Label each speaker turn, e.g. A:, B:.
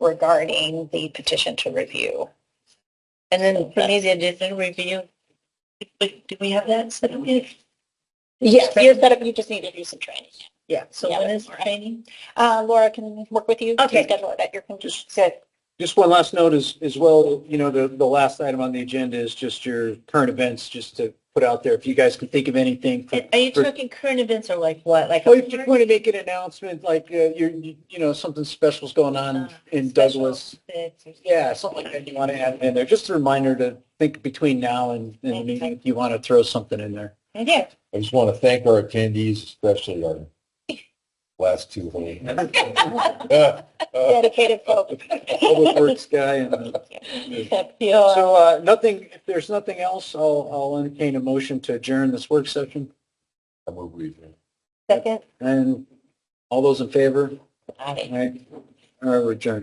A: regarding the petition to review.
B: And then for me, the additional review, wait, do we have that set up yet?
A: Yes, you're set up, you just need to do some training.
B: Yeah, so
A: Yeah,
B: when is
A: that's right.
B: training?
A: Uh, Laura can work with you to
B: Okay.
A: schedule it at your convenience.
C: Just one last note as, as well, you know, the, the last item on the agenda is just your current events, just to put out there. If you guys can think of anything. for-
B: And Are you Oh,
C: for-
B: talking current events or like what, like?
C: Well, if you're going to make an announcement, like, uh, you're, you you know, something special's going on in Douglas. Yeah, something like that you want to add in there. Just a reminder to think between now and, and the meeting if you want to throw something in there.
B: Yeah,
D: I just want to thank our attendees, especially our last two. Uh, uh,
A: Dedicated folks.
C: Public Works guy and the
A: Yeah.
C: So uh, nothing, if there's nothing else, I'll, I'll entertain a motion to adjourn this work session.
D: I move we adjourn.
B: second.
C: And all those in favor?
B: Aye.
C: All right, All right, we're adjourned.